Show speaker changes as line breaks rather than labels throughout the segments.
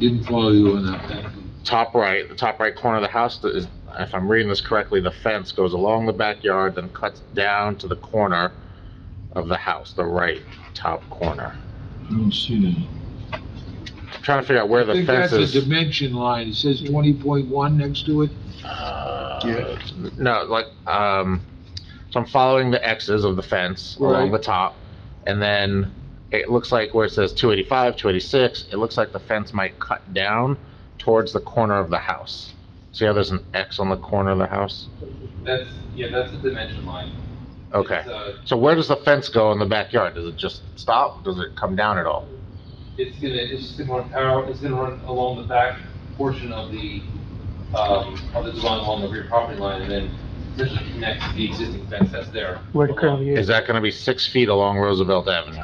Didn't follow you on that one.
top right, the top right corner of the house, the- is- if I'm reading this correctly, the fence goes along the backyard, then cuts down to the corner of the house, the right top corner.
I don't see that.
I'm trying to figure out where
I
the
think
fence
that's a
is.
dimension line, it says twenty point one next to it.
Uh,
Yeah.
No, like, um, so I'm following the X's of the fence along
Right.
the top, and then it looks like where it says 285, 286, it looks like the fence might cut down towards the corner of the house. See how there's an X on the corner of the house?
That's, yeah, that's the dimension line.
Okay.
It's, uh,
So where does the fence go in the backyard? Does it just stop? Does it come down at all?
It's gonna, it's just gonna run parallel, it's gonna run along the back portion of the, um, of the design along the rear property line and then essentially connect to the existing fence that's there.
Where it currently
Is
is.
that gonna be six feet along Roosevelt Avenue?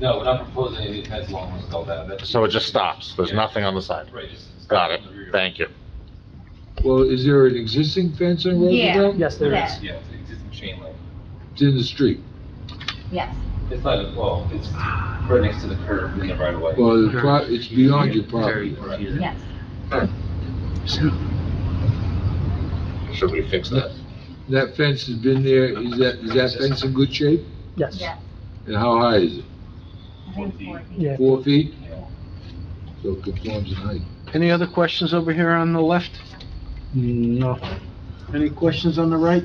No, we're not proposing any new fence along Roosevelt Ave. That's-
So it just stops? There's
Yeah.
nothing on the side?
Right, just.
Got it. Thank you.
Well, is there an existing fence on
Yeah.
Roosevelt?
Yes, there is.
Yeah, it's an existing chain link.
It's in the street.
Yes,
It's not, well, it's right next to the curb in the right of way.
Well, the pro- it's beyond your property.
yes.
Should we fix that?
That fence has been there, is that, is that fence in good shape?
Yes.
Yes.
And how high is it?
I think it's four feet.
Yeah.
Four feet?
Yeah.
So it conforms in height.
Any other questions over here on the left?
No.
Any questions on the right?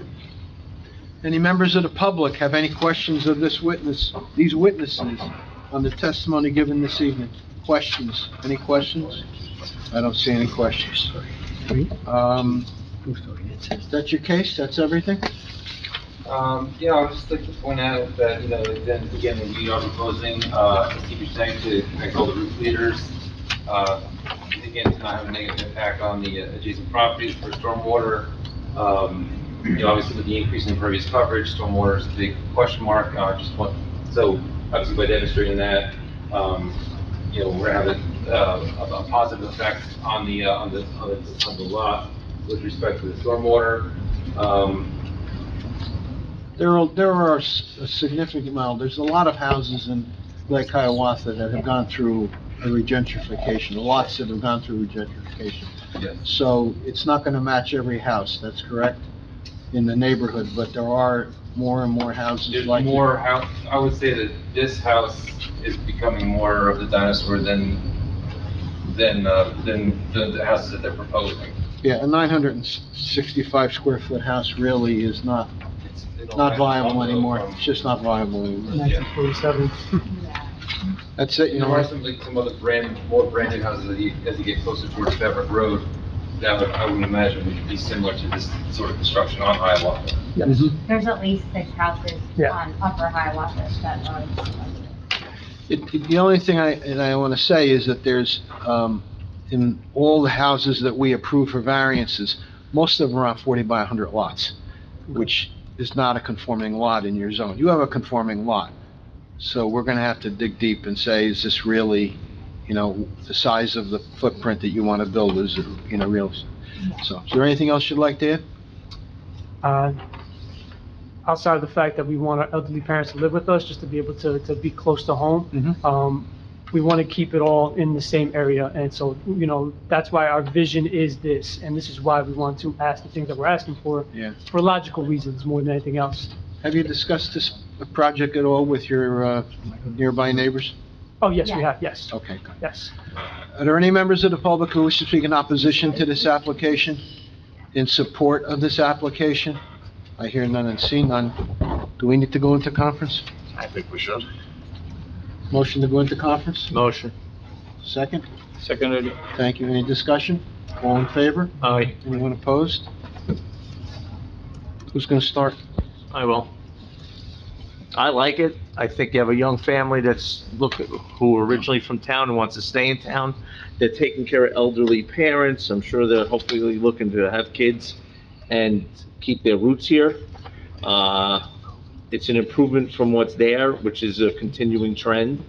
Any members of the public have any questions of this witness, these witnesses on the testimony given this evening? Questions? Any questions? I don't see any questions. Um, is that your case? That's everything?
Um, yeah, I'd just like to point out that, you know, then again, we are proposing, uh, as Steve was saying, to connect all the roof leaders. Uh, again, to not have a negative impact on the adjacent properties for stormwater. Um, you know, obviously with the increase in impervious coverage, stormwater is a big question mark, uh, just want, so obviously by demonstrating that, um, you know, we're gonna have a, uh, a- a positive effect on the, uh, on the, on the, on the lot with respect to the stormwater. Um,
There are, there are a significant amount, there's a lot of houses in Lake Hiawatha that have gone through a regentrification, lots that have gone through regentrification.
Yes.
So it's not gonna match every house, that's correct, in the neighborhood, but there are more and more houses
There's
like.
more house, I would say that this house is becoming more of the dinosaur than, than, uh, than the the houses that they're proposing.
Yeah, a nine hundred and sixty-five square foot house really is not,
It's- they don't
not
have-
viable anymore, it's just not viable anymore.
Nineteen forty-seven.
Yeah.
That's it, you
There
know,
are some, like, some other brand, more branded houses as you, as you get closer towards Beverly Road, that would, I would imagine would be similar to this sort of construction on Hiawatha.
Yes.
There's at least six houses
Yeah.
on Upper Hiawatha that are.
It- it- The only thing I, and I want to say is that there's, um, in all the houses that we approve for variances, most of them are on 40 by 100 lots, which is not a conforming lot in your zone. You have a conforming lot. So we're going to have to dig deep and say, is this really, you know, the size of the footprint that you want to build is, it, you know, real? So, is there anything else you'd like to add?
Uh, Outside of the fact that we want our elderly parents to live with us, just to be able to, to be close to home,
Mm-hmm.
um, we want to keep it all in the same area. And so, you know, that's why our vision is this, and this is why we want to ask the things that we're asking for,
Yeah.
for logical reasons more than anything else.
Have you discussed this project at all with your uh, nearby neighbors?
Oh, yes, we
Yeah.
have, yes,
Okay, good.
yes.
Are there any members of the public who wish to speak in opposition to this application? In support of this application? I hear none and see none. Do we need to go into conference?
I think we should.
Motion to go into conference?
Motion.
Second?
Seconded.
Thank you. Any discussion? All in favor?
Aye.
Anyone opposed? Who's going to start?
I will. I like it. I think you have a young family that's, look, who are originally from town and wants to stay in town. They're taking care of elderly parents. I'm sure they're hopefully looking to have kids and keep their roots here. Uh, it's an improvement from what's there, which is a continuing trend.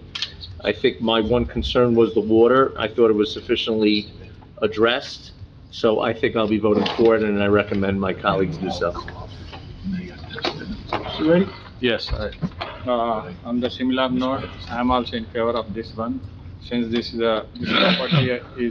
I think my one concern was the water. I thought it was sufficiently addressed. So I think I'll be voting for it and I recommend my colleagues do so.
You ready?
Yes, I- uh, on the Shimla North, I'm also in favor of this one. since this is a, this property is